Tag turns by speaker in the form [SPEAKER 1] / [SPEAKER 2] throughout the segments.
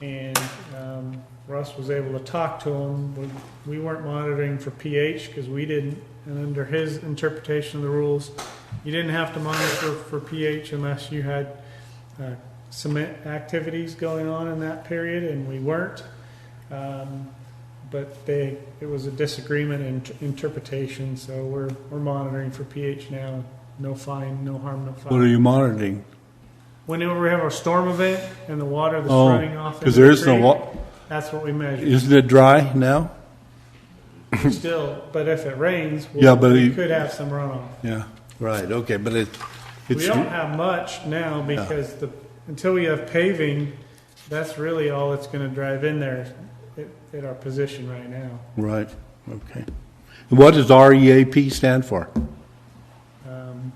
[SPEAKER 1] and um, Russ was able to talk to him. We, we weren't monitoring for pH because we didn't, and under his interpretation of the rules, you didn't have to monitor for pH unless you had uh, cement activities going on in that period, and we weren't. Um, but they, it was a disagreement in interpretation, so we're, we're monitoring for pH now. No fine, no harm, no foul.
[SPEAKER 2] What are you monitoring?
[SPEAKER 1] Whenever we have a storm event and the water that's
[SPEAKER 2] Oh,
[SPEAKER 1] running off,
[SPEAKER 2] Because
[SPEAKER 1] into
[SPEAKER 2] there
[SPEAKER 1] the
[SPEAKER 2] is no,
[SPEAKER 1] creek,
[SPEAKER 2] wa-
[SPEAKER 1] That's what we measure
[SPEAKER 2] isn't it dry now?
[SPEAKER 1] still. But if it rains, we'll,
[SPEAKER 2] Yeah, but
[SPEAKER 1] we
[SPEAKER 2] you-
[SPEAKER 1] could have some runoff.
[SPEAKER 2] Yeah, right, okay, but it,
[SPEAKER 1] we
[SPEAKER 2] it's,
[SPEAKER 1] don't have much now because the until we have paving, that's really all that's going to drive in there at, at our position right now.
[SPEAKER 2] right, okay. And What does REAP stand for?
[SPEAKER 1] Um,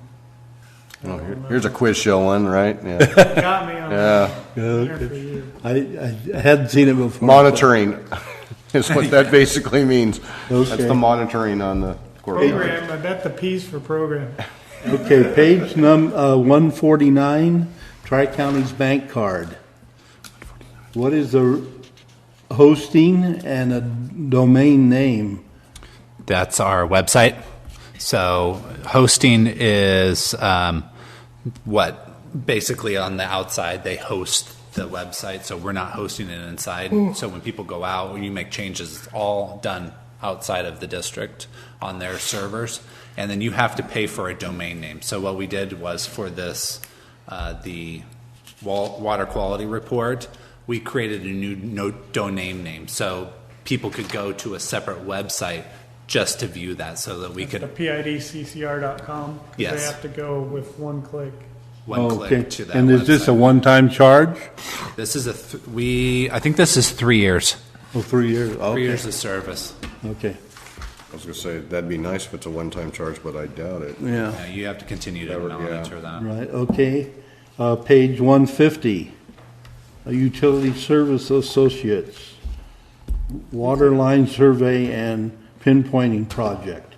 [SPEAKER 1] I
[SPEAKER 3] Oh,
[SPEAKER 1] don't
[SPEAKER 3] here-
[SPEAKER 1] know.
[SPEAKER 3] Here's a quiz show one, right? Yeah.
[SPEAKER 1] You got me on
[SPEAKER 3] Yeah.
[SPEAKER 1] there for you.
[SPEAKER 2] I, I hadn't seen it before.
[SPEAKER 3] Monitoring is what that basically means. That's
[SPEAKER 2] Okay.
[SPEAKER 3] the monitoring on the courtyard.
[SPEAKER 1] Program, I bet the P's for program.
[SPEAKER 2] Okay, page num, uh, one forty-nine, Tri-County's bank card. What is the hosting and a domain name?
[SPEAKER 4] That's our website. So hosting is um, what basically on the outside they host the website. So we're not hosting it inside.
[SPEAKER 2] Mm.
[SPEAKER 4] So when people go out, when you make changes, it's all done outside of the district on their servers. And then you have to pay for a domain name. So what we did was for this, uh, the wa- water quality report, we created a new no domain name. So people could go to a separate website just to view that so that we
[SPEAKER 1] The
[SPEAKER 4] could
[SPEAKER 1] PIDCCR.com. 'cause They
[SPEAKER 4] Yes.
[SPEAKER 1] have to go with one click.
[SPEAKER 4] one
[SPEAKER 2] Oh, Okay,
[SPEAKER 4] click to that
[SPEAKER 2] And is this a
[SPEAKER 4] website.
[SPEAKER 2] one-time charge?
[SPEAKER 4] This is a, th- we, I think this is three years,
[SPEAKER 2] Oh, three years,
[SPEAKER 4] three
[SPEAKER 2] okay,
[SPEAKER 4] years of service.
[SPEAKER 2] okay,
[SPEAKER 3] I was gonna say, that'd be nice if it's a one-time charge, but I doubt it.
[SPEAKER 2] yeah.
[SPEAKER 4] Yeah, You have to continue to
[SPEAKER 3] Never- yeah.
[SPEAKER 4] monitor that.
[SPEAKER 2] Right, okay. Uh, Page 150, uh, Utility Service Associates, Water Line Survey and Pinpointing Project.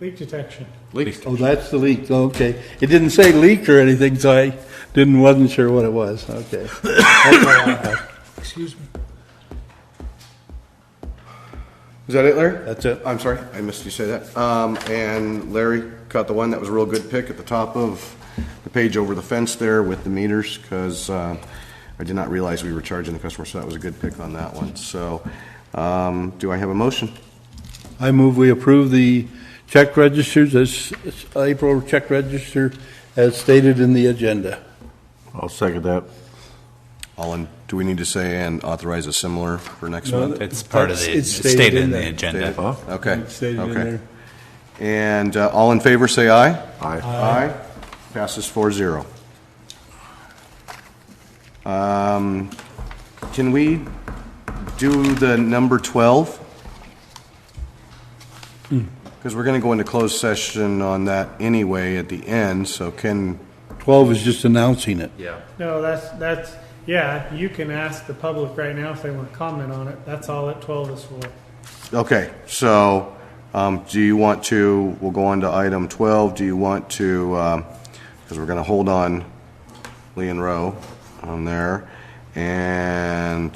[SPEAKER 1] Leak detection.
[SPEAKER 2] Oh, that's the leak, okay. It didn't say leak or anything, so I didn't, wasn't sure what it was, okay.
[SPEAKER 1] Excuse me.
[SPEAKER 3] Is that it, Larry?
[SPEAKER 2] That's it.
[SPEAKER 3] I'm sorry, I missed you say that. Um, and Larry caught the one that was a real good pick at the top of the page over the fence there with the meters, because, uh, I did not realize we were charging the customer, so that was a good pick on that one. So, um, do I have a motion?
[SPEAKER 2] I move we approve the check registers, as as April check register as stated in the agenda.
[SPEAKER 3] I'll second that. All in, do we need to say and authorize a similar for next
[SPEAKER 2] No,
[SPEAKER 3] month?
[SPEAKER 4] It's part of
[SPEAKER 2] That's-
[SPEAKER 4] the,
[SPEAKER 2] it's
[SPEAKER 4] it's
[SPEAKER 2] stated
[SPEAKER 4] stated
[SPEAKER 2] in
[SPEAKER 4] in
[SPEAKER 2] there.
[SPEAKER 4] the agenda.
[SPEAKER 3] Okay.
[SPEAKER 2] It's Stated in
[SPEAKER 3] okay.
[SPEAKER 2] there.
[SPEAKER 3] And uh, all in favor, say aye. Aye. Aye. Passes four zero. Um, Can we do the number 12? Because we're going to go into closed session on that anyway at the end, so can,
[SPEAKER 2] 12 is just announcing it.
[SPEAKER 4] Yeah.
[SPEAKER 1] No, that's, that's, yeah, you can ask the public right now if they want to comment on it. That's all that 12 is for.
[SPEAKER 3] okay, so um, do you want to, we'll go on to item 12, do you want to, because we're going to hold on Lee and Rowe on there. And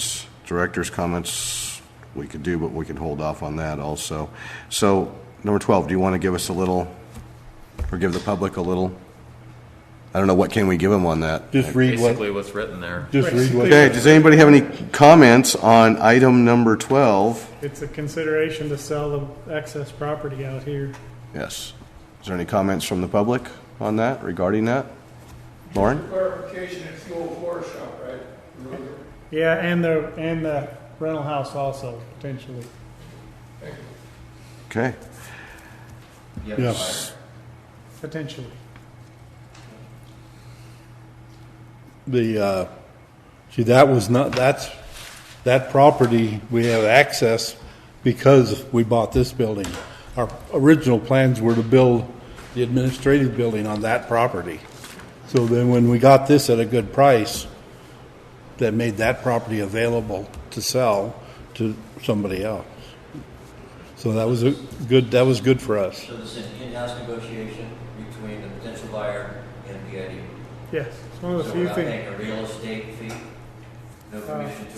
[SPEAKER 3] director's comments, we could do, but we could hold off on that also. So, number 12, do you want to give us a little, or give the public a little? I don't know, what can we give them on that?
[SPEAKER 2] Just read what,
[SPEAKER 5] basically what's written there.
[SPEAKER 2] just read what.
[SPEAKER 3] Okay, does anybody have any comments on item number 12?
[SPEAKER 1] It's a consideration to sell the excess property out here.
[SPEAKER 3] Yes. Is there any comments from the public on that, regarding that? Lauren?
[SPEAKER 6] Clarification, it's the old floor shop, right?
[SPEAKER 1] Yeah, and the, and the rental house also, potentially.
[SPEAKER 3] Okay.
[SPEAKER 2] Yes.
[SPEAKER 1] Potentially.
[SPEAKER 2] The, uh, see, that was not, that's, that property, we have access because we bought this building. Our original plans were to build the administrative building on that property. So then when we got this at a good price, that made that property available to sell to somebody else. So that was a good, that was good for us.
[SPEAKER 7] So this is an in-house negotiation between the potential buyer and PID.
[SPEAKER 1] Yes, it's one of the
[SPEAKER 7] E. So we're
[SPEAKER 1] few
[SPEAKER 7] not
[SPEAKER 1] things. Uh,
[SPEAKER 7] paying a real estate fee, no commission to